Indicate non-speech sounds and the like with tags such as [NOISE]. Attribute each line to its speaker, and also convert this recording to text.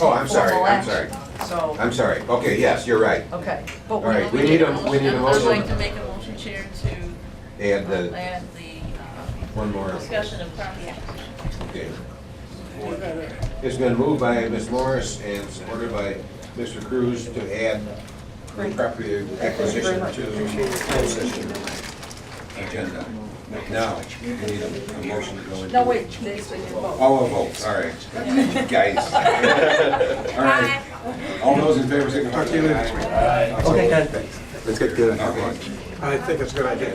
Speaker 1: Oh, I'm sorry,
Speaker 2: formal
Speaker 1: I'm sorry,
Speaker 2: action. So,
Speaker 1: I'm sorry. Okay, yes, you're right.
Speaker 2: okay, but
Speaker 1: All right,
Speaker 2: we,
Speaker 1: we need a, we need a
Speaker 3: I'd like to
Speaker 1: motion.
Speaker 3: make a motion, Chair, to
Speaker 1: Add
Speaker 3: uh,
Speaker 1: the,
Speaker 3: add the
Speaker 1: one
Speaker 3: uh,
Speaker 1: more.
Speaker 3: discussion of property acquisition.
Speaker 1: Okay. It's been moved by Ms. Morris and supported by Mr. Cruz to add the property acquisition to the closed session agenda. Now, we need a a motion to go into.
Speaker 2: no, wait, this we can vote.
Speaker 1: Oh, a vote, sorry.
Speaker 2: [LAUGHS]
Speaker 1: Guys. All right. All those in favor, signify by saying aye.
Speaker 4: Okay, guys.
Speaker 1: Okay.
Speaker 5: I think it's a good idea.